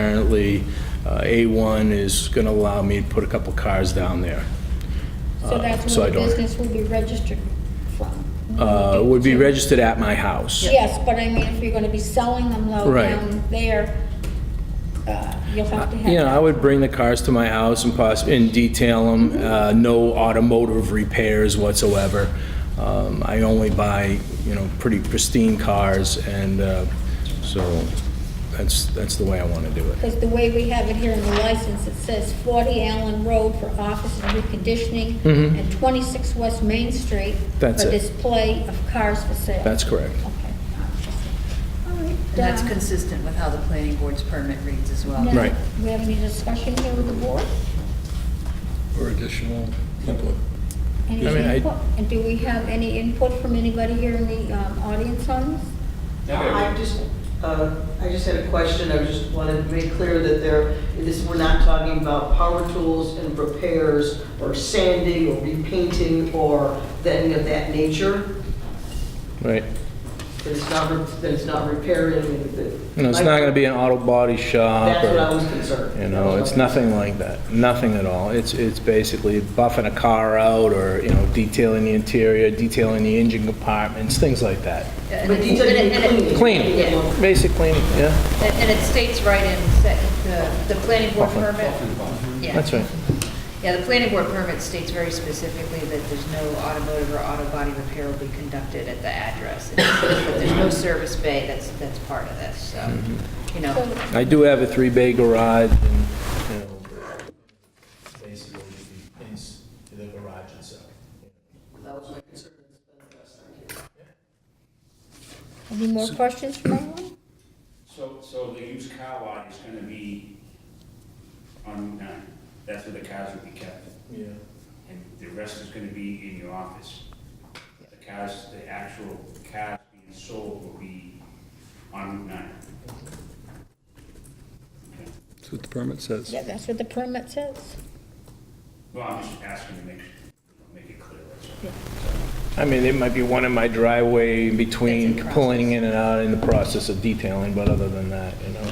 Apparently, uh, A1 is going to allow me to put a couple cars down there. So that's Uh, so I where the don't- business will be registered from? Uh, Would be registered at my house. Yes, but I mean, if you're gonna be selling them though Right. down there, uh, you'll have to have. You know, I would bring the cars to my house and poss, and detail them, no automotive repairs whatsoever. Um, I only buy, you know, pretty pristine cars, and uh, so that's, that's the way I want to do it. Because the way we have it here in the license, it says 40 Allen Road for office and reconditioning, and 26 West Main Street Mm-hmm. That's for it. display of cars for sale. That's correct. Okay. All right, And that's uh, consistent with how the planning board's permit reads as well. now, Right. We have any discussion here with the board? or additional input. Any I mean, I- input? And do we have any input from anybody here in the um, audience on this? I just, uh, I just had a question, I just wanted to make clear that there, this, we're not talking about power tools and repairs, or sanding, or repainting, or anything of that nature, Right. that it's not, re- that it's not repairing, that. You know, it's not going to be an auto body shop. That's what I or- was concerned. You know, it's nothing like that, nothing at all. It's, it's basically buffing a car out or, you know, detailing the interior, detailing the engine compartments, things like that. And But it- detailing, and it- and it- Clean, basic cleaning, yeah, And it states right in, se- the, the planning board Buffalo. permit. Yeah. that's right. Yeah, the planning board permit states very specifically that there's no automotive or auto body repair will be conducted at the address. It says that There's no service bay, that's, that's part of this, so, you know. So- I do have a three-bay garage and, you know, basically the, it's the garage itself. Any more questions from anyone? So, so the used car lot is gonna be on Route 9, that's where the cars will be kept, Yeah. and the rest is gonna be in your office. The cars, the actual cars being sold will be on Route 9. Okay. That's what the permit says. Yeah, that's what the permit says. Well, I'm just asking to make, make it clear, that's all. I mean, there might be one in my driveway in between That's in pulling in and out in the process of detailing, but other than that, you know.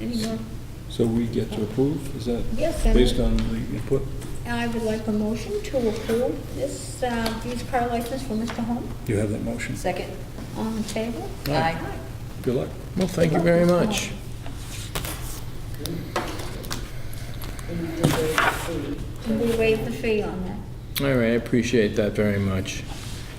Any more? So we get to approve, is that Yes, and- based on the input? I would like a motion to approve this uh, used car license for Mr. Home. You have that motion. Second? All in favor? Aye. Good luck. Well, thank you very much. And we waive the fee on that. All right, I appreciate that very much.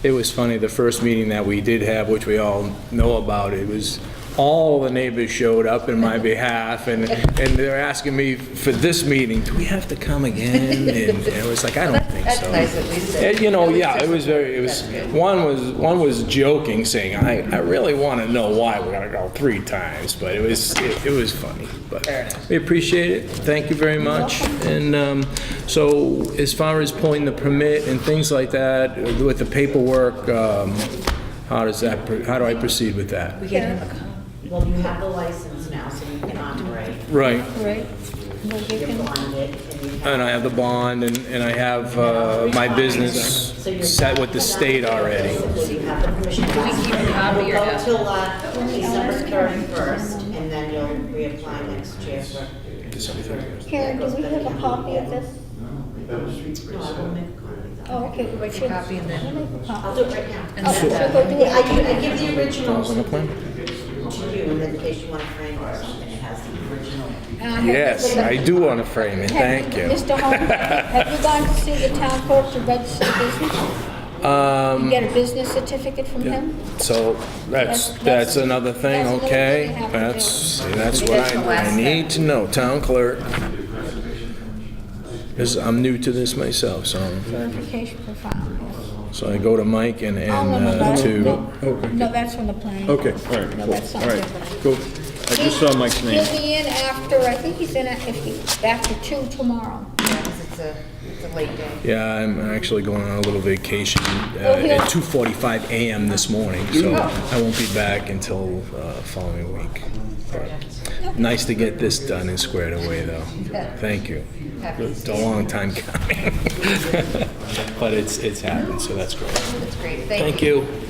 It was funny, the first meeting that we did have, which we all know about, it was, all the neighbors showed up in my behalf, and, and they're asking me for this meeting, do we have to come again? And it was like, I don't think That's so. nice, at least. Eh, that- You know, at least yeah, there's- it was very, it was, That's good. one was, one was joking, saying, I, I really want to know why we're gonna go three times, but it was, it it was funny, but. Fair enough. We appreciate it, thank you very much. And um, so, as far as pulling the permit and things like that, with the paperwork, um, how does that, pr- how do I proceed with that? We get him a copy. Well, you have the license now, so you can operate. Right, Right? Well, you You're can- bonded, and you have... and I have the bond, and and I have uh, my business So you're- set with the state already. So you have the permission to keep a copy or It'll no? go till uh, December 31st, and then you'll reapply next year for... Karen, do we have a copy of this? No, I will make a copy. Oh, okay. we Make a should- copy and then- we'll make a I'll copy. do it right now. Oh, And so then, go do Yeah, I it. give I give the original Sounds like a to plan. you, and then in case you want to frame it or something, it has the original. And I have- Yes, I do want to frame it, Have thank you. Mr. Home, have you gone to see the town clerk to register business? Um, You get a business certificate from him? So that's, That's- that's another thing, that's another okay? thing I have to That's, do. see, that's what That's the I, I last need to know, town clerk. This, I'm new to this myself, so, Verification for file. so I go to Mike and, and Oh, no, no, uh, no, to, no. No, that's from the planning. Oh, Okay, board. all right, No, cool, that's all something right, different. cool. I just saw Mike's name. He'll be in after, I think he's in, a- if he, after two tomorrow. yeah, 'cause it's a, it's a late day. yeah, I'm actually going on a little vacation Oh, uh, here. at 2:45 AM this morning, so Oh. I won't be back until uh, following week. Nice to get this done and squared away, though. Thank you. Happy to It's see a long time coming. But it's, it's happened, so that's great. That's great, Thank you.